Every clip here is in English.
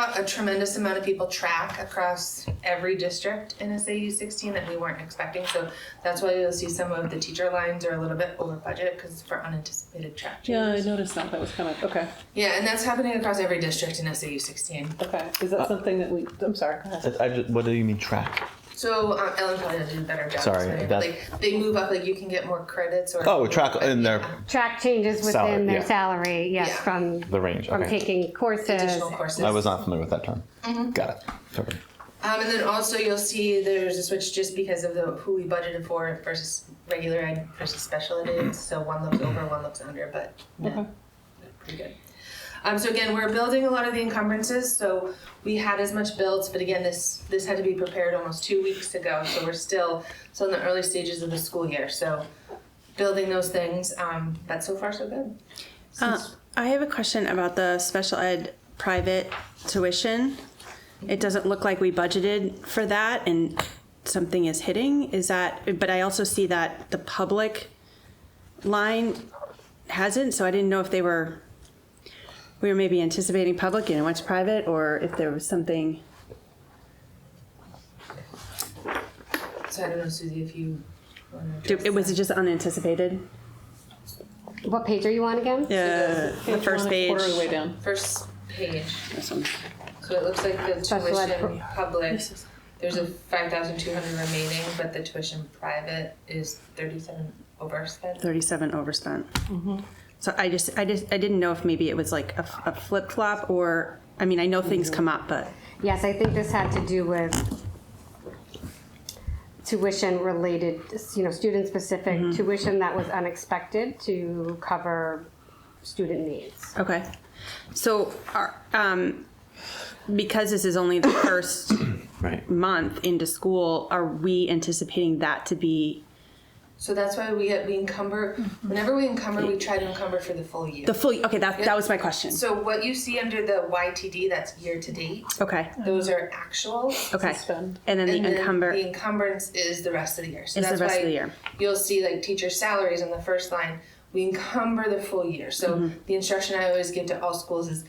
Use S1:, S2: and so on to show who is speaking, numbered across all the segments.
S1: lot, a tremendous amount of people track across every district in SAU 16 that we weren't expecting. So that's why you'll see some of the teacher lines are a little bit over budget because for unanticipated track
S2: Yeah, I
S1: changes.
S2: noticed that. That was coming. Okay.
S1: Yeah, and that's happening across every district in SAU 16.
S2: Okay. Is that something that we? I'm sorry. Go ahead.
S3: I just, what do you mean track?
S1: So um, Ellen probably did a better job.
S3: Sorry,
S1: explaining, but,
S3: that-
S1: like they move up, like you can get more credits or uh,
S3: Oh, track in their
S4: Track changes within
S3: Salary,
S4: their
S3: yeah.
S4: salary, yes,
S1: Yeah.
S4: from
S3: the range.
S4: from
S3: Okay.
S4: taking courses.
S1: additional courses.
S3: I was not familiar with that term. Got it. Okay.
S1: Um, and then also you'll see there's a switch just because of the who we budgeted for versus regular ed versus special ed. is. So one looks over, one looks under, but no,
S2: Okay.
S1: no, pretty good. Um, so again, we're building a lot of the encumbrances. So we had as much builds, but again, this this had to be prepared almost two weeks ago. So we're still still in the early stages of the school year. So building those things, um, but so far so good.
S5: Uh, I have a question about the special ed private tuition. It doesn't look like we budgeted for that and something is hitting. Is that, but I also see that the public line hasn't, so I didn't know if they were, we were maybe anticipating public and it went to private or if there was something.
S1: So I don't know, Susie, if you. wanna
S5: do-
S1: address
S5: It was just unanticipated.
S4: What page are you on again?
S5: Yeah, the
S2: Page
S5: first
S2: one,
S5: page.
S2: Quarter of the way down.
S1: that. First page.
S5: This one.
S1: So it looks like the
S4: Special ed
S1: tuition public,
S5: This is-
S1: there's a five thousand two hundred remaining, but the tuition private is thirty-seven overspent.
S5: 37 overspent.
S1: Mm-hmm.
S5: So I just, I just, I didn't know if maybe it was like a, flip flop or, I mean, I know things
S1: Mm-hmm.
S5: come up, but
S4: Yes, I think this had to do with tuition related, you know, student specific
S3: Mm-hmm.
S4: tuition that was unexpected to cover student needs.
S5: okay. So, are, um, because this is only the first
S3: Right.
S5: month into school, are we anticipating that to be
S1: So that's why we get, we encumber, whenever we encumber, we try to encumber for the full year.
S5: Mm-hmm. the full? Okay, that that was my question.
S1: So what you see under the YTD, that's year to date,
S5: Okay,
S1: those are actuals.
S5: okay.
S2: Spend.
S5: And then the
S1: And then
S5: encumber
S1: The encumbrance is the rest of the year. So
S5: is the
S1: that's
S5: rest
S1: why
S5: of the year.
S1: you'll see like teacher salaries on the first line. We encumber the full year. So the instruction I always give to all schools is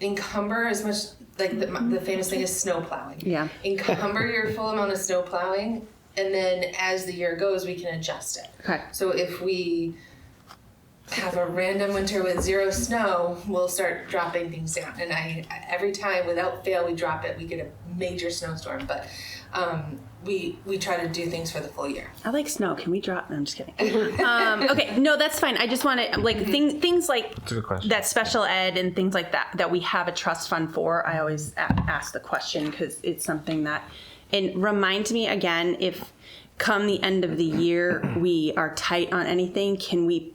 S1: encumber as much like the, the famous thing is snow plowing.
S5: Yeah.
S1: Encumber your full amount of snow plowing, and then as the year goes, we can adjust it.
S5: Okay.
S1: So if we have a random winter with zero snow, we'll start dropping things down. And I, every time, without fail, we drop it. We get a major snowstorm, but um, we we try to do things for the full year.
S5: I like snow. Can we drop? No, I'm just kidding. um, okay, no, that's fine. I just want to
S1: Mm-hmm.
S5: like thing, things like
S3: a good question.
S5: that special ed and things like that that we have a trust fund for. I always a- ask the question because it's something that and remind me again if come the end of the year we are tight on anything. Can we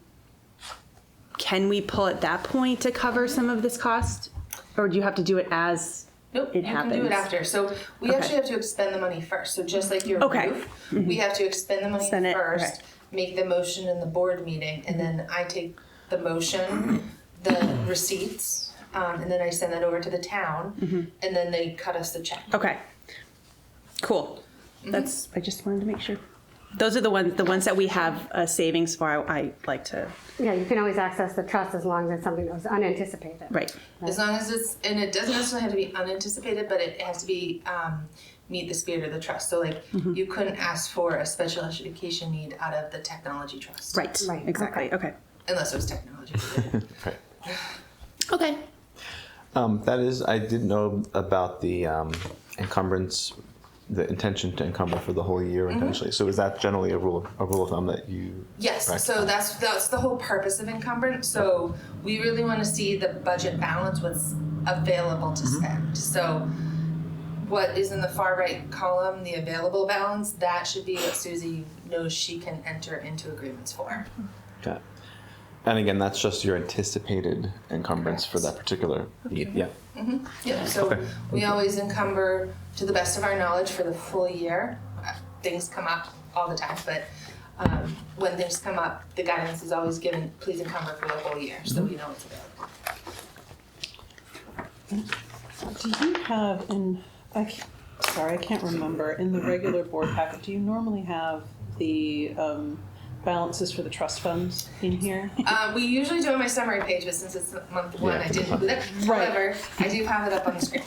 S5: can we pull at that point to cover some of this cost, or do you have to do it as?
S1: Nope,
S5: It
S1: you can do it
S5: happens.
S1: after. So we
S5: Okay.
S1: actually have to expend the money first. So just like your
S5: Okay.
S1: roof, we have to expend the money
S5: Spend it,
S1: first,
S5: okay.
S1: make the motion in the board meeting, and then I take the motion, the receipts, um, and then I send that over to the town, and then they cut us the check.
S5: Mm-hmm. Okay. Cool. That's, I just wanted to make sure. Those are the ones, the ones that we have a savings for, I I like to,
S4: Yeah, you can always access the trust as long as it's something that was unanticipated.
S5: right.
S1: As long as it's, and it doesn't necessarily have to be unanticipated, but it has to be um, meet the spirit of the trust. So, like,
S5: Mm-hmm.
S1: you couldn't ask for a special education need out of the technology trust,
S5: Right,
S4: Right,
S5: exactly, okay.
S1: Unless it was technology.
S3: Right.
S5: Okay.
S3: Um, that is, I didn't know about the um, encumbrance, the intention to encumber for the whole year intentionally. So is that generally a rule, of, a rule of thumb that you?
S1: Yes,
S3: practice?
S1: so that's that's the whole purpose of encumbrance. So we really want to see the budget balance, what's available to spend. So what is in the far right column, the available balance, that should be what Susie knows she can enter into agreements for.
S3: Got it. And again, that's just your anticipated encumbrance for that particular need. Yeah.
S1: Yeah, so
S3: Okay.
S1: we always encumber to the best of our knowledge for the full year. Uh, Things come up all the time, but um, when things come up, the guidance is always given, please encumber for the whole year, so we know it's available.
S2: Do you have in, I, c- sorry, I can't remember, in the regular board packet, do you normally have the um, balances for the trust funds in here?
S1: Uh, we usually do it on my summary page, but since it's month one,
S3: Yeah.
S1: I didn't do that.
S2: Right.
S1: However, I do have it up on the screen.